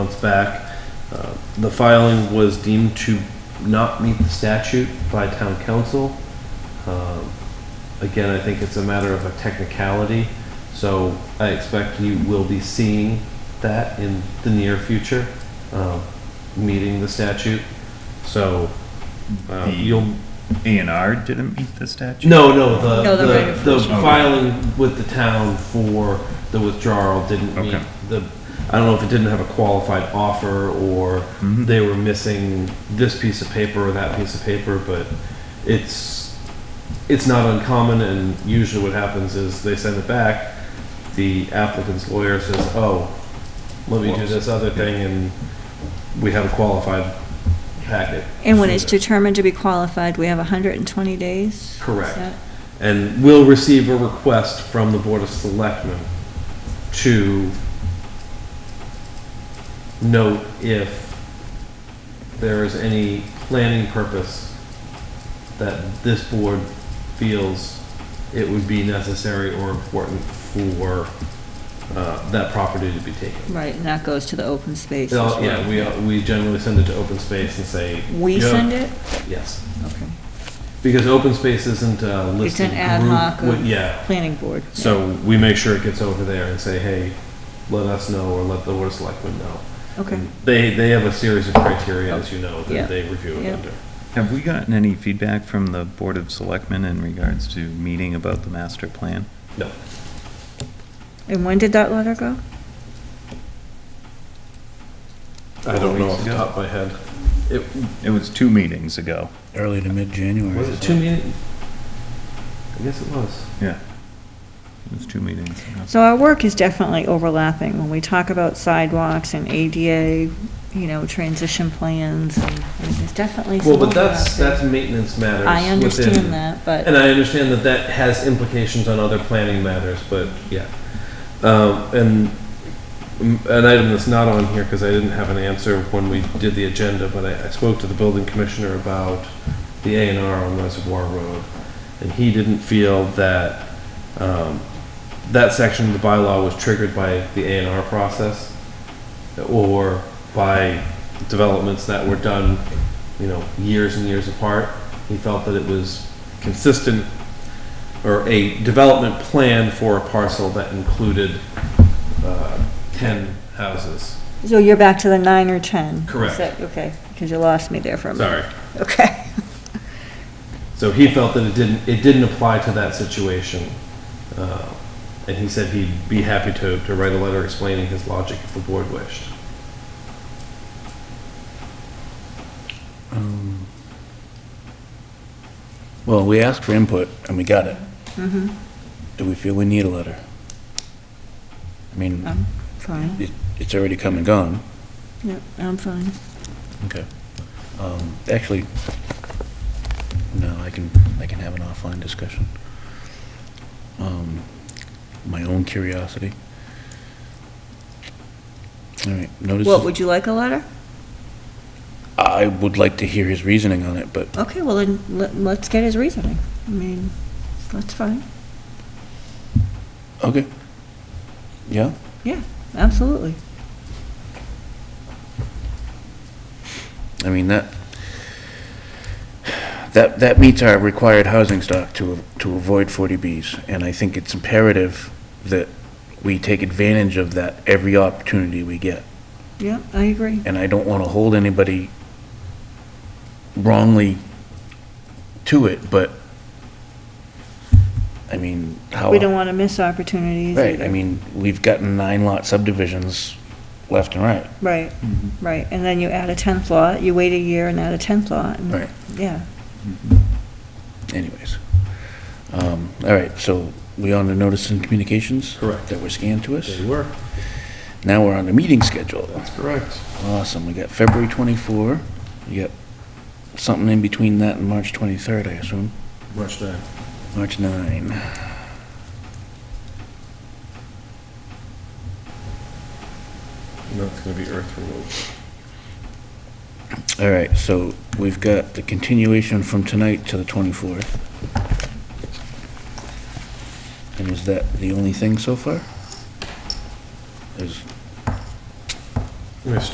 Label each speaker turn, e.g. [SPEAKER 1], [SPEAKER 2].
[SPEAKER 1] months back. Uh, The filing was deemed to not meet the statute by town council. Um, Again, I think it's a matter of a technicality, so I expect you will be seeing that in the near future, um, meeting the statute. So uh,
[SPEAKER 2] The-
[SPEAKER 1] you'll,
[SPEAKER 2] A and R didn't meet the statute?
[SPEAKER 1] no, no, the,
[SPEAKER 3] No, the right
[SPEAKER 1] the,
[SPEAKER 3] of
[SPEAKER 1] the
[SPEAKER 3] first
[SPEAKER 2] refusal.
[SPEAKER 1] filing with the town for the withdrawal didn't meet
[SPEAKER 2] Okay.
[SPEAKER 1] the, I don't know if it didn't have a qualified offer or
[SPEAKER 2] Mhm.
[SPEAKER 1] they were missing this piece of paper or that piece of paper, but it's, it's not uncommon and usually what happens is they send it back, the applicant's lawyer says, oh, let me do this other thing and we have a qualified packet.
[SPEAKER 3] And when it's
[SPEAKER 1] Sure.
[SPEAKER 3] determined to be qualified, we have 120 days? Is
[SPEAKER 1] Correct.
[SPEAKER 3] that-
[SPEAKER 1] and will receive a request from the Board of Selectmen to note if there is any planning purpose that this board feels it would be necessary or important for uh, that property to be taken.
[SPEAKER 3] Right, and that goes to the open space.
[SPEAKER 1] Uh, Yeah, we, we generally send it to open space and say.
[SPEAKER 3] We
[SPEAKER 1] "Yeah."
[SPEAKER 3] send it?
[SPEAKER 1] Yes,
[SPEAKER 3] Okay.
[SPEAKER 1] because open space isn't a
[SPEAKER 3] It's
[SPEAKER 1] listed
[SPEAKER 3] an
[SPEAKER 1] group.
[SPEAKER 3] ad hoc
[SPEAKER 1] wi-
[SPEAKER 3] of
[SPEAKER 1] Yeah,
[SPEAKER 3] planning board.
[SPEAKER 1] So we make sure it gets over there and say, hey, let us know or let the Board of Selectmen know.
[SPEAKER 3] Okay.
[SPEAKER 1] And They, they have a series of criteria, as you know,
[SPEAKER 3] Yeah.
[SPEAKER 1] that they review it
[SPEAKER 3] Yeah.
[SPEAKER 1] under.
[SPEAKER 2] Have we gotten any feedback from the Board of Selectmen in regards to meeting about the master plan?
[SPEAKER 1] No,
[SPEAKER 3] And when did that letter go?
[SPEAKER 1] I don't know off the
[SPEAKER 2] Yeah.
[SPEAKER 1] top of my head. It,
[SPEAKER 2] It was two meetings ago.
[SPEAKER 4] Early to mid-January.
[SPEAKER 1] was it two meetings? I guess it was.
[SPEAKER 2] Yeah. It was two meetings ago.
[SPEAKER 3] So our work is definitely overlapping. When we talk about sidewalks and ADA, you know, transition plans, and and there's definitely some
[SPEAKER 1] Well, but
[SPEAKER 3] overlap.
[SPEAKER 1] that's,
[SPEAKER 3] there.
[SPEAKER 1] that's maintenance matters.
[SPEAKER 3] I
[SPEAKER 1] within-
[SPEAKER 3] understand that, but
[SPEAKER 1] And I understand that that has implications on other planning matters, but yeah. Um, and mm, an item that's not on here, because I didn't have an answer when we did the agenda, but I, I spoke to the building commissioner about the A and R on Reservoir Road, and he didn't feel that, um, that section of the bylaw was triggered by the A and R process or by developments that were done, you know, years and years apart. He felt that it was consistent or a development plan for a parcel that included uh, 10 houses.
[SPEAKER 3] So you're back to the nine or 10?
[SPEAKER 1] Correct.
[SPEAKER 3] Okay, because you lost me there for a minute.
[SPEAKER 1] Sorry.
[SPEAKER 3] Sorry. Okay.
[SPEAKER 1] So he felt that it didn't, it didn't apply to that situation. Uh, And he said he'd be happy to, to write a letter explaining his logic if the board wished.
[SPEAKER 4] Um, Well, we asked for input and we got it. Do we feel we need a letter? I mean,
[SPEAKER 3] I'm fine.
[SPEAKER 4] it, it's already come and gone.
[SPEAKER 3] Yep, I'm fine.
[SPEAKER 4] Okay. Um, actually, no, I can, I can have an offline discussion. Um, my own curiosity. All right, notice,
[SPEAKER 3] What, would you like a letter?
[SPEAKER 4] I would like to hear his reasoning on it, but
[SPEAKER 3] Okay, well, then, let- let's get his reasoning. I mean, that's fine.
[SPEAKER 4] Okay. Yeah?
[SPEAKER 3] Yeah, absolutely.
[SPEAKER 4] I mean, that, that, that meets our required housing stock to, to avoid 40Bs. And I think it's imperative that we take advantage of that every opportunity we get.
[SPEAKER 3] Yeah, I agree.
[SPEAKER 4] And I don't want to hold anybody wrongly to it, but, I mean, how.
[SPEAKER 3] We don't want to miss opportunities
[SPEAKER 4] Oh. Right, I
[SPEAKER 3] either.
[SPEAKER 4] mean, we've gotten nine lot subdivisions left and right.
[SPEAKER 3] Right,
[SPEAKER 4] Mm-hmm.
[SPEAKER 3] right. And then you add a 10th lot, you wait a year and add a 10th lot. and-
[SPEAKER 4] Right.
[SPEAKER 3] Yeah.
[SPEAKER 4] anyways. Um, all right, so we on to notice and communications?
[SPEAKER 1] Correct.
[SPEAKER 4] That were scanned to us?
[SPEAKER 1] were.
[SPEAKER 4] Now we're on the meeting schedule.
[SPEAKER 1] Correct.
[SPEAKER 4] Awesome, we got February 24, you got something in between that and March 23rd, I assume?
[SPEAKER 1] Much time.
[SPEAKER 4] March 9.
[SPEAKER 1] No, it's going to be earth removal.
[SPEAKER 4] All right, so we've got the continuation from tonight to the 24th. And is that the only thing so far? Is
[SPEAKER 1] We have